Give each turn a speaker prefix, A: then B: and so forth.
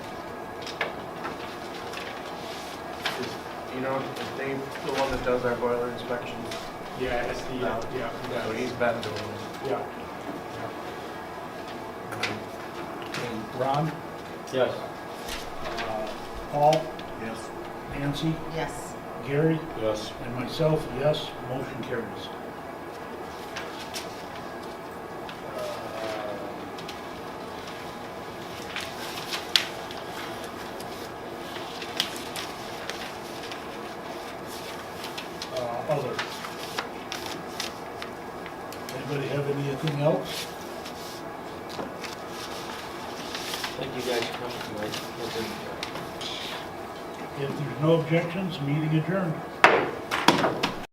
A: you know, is Dave the one that does our boiler inspections?
B: Yeah, it's the,
A: No.
B: uh, yeah,
A: Yeah, but he's been doing it.
B: yeah.
C: Okay, Ron,
D: Yes.
C: uh, Paul,
A: Yes.
C: Nancy,
E: Yes.
C: Gary,
D: Yes.
C: and myself, yes, motion carries.
B: Uh,
C: Uh, Other. Anybody have anything else?
D: Thank you guys for coming tonight.
C: If there's no objections, meeting adjourned.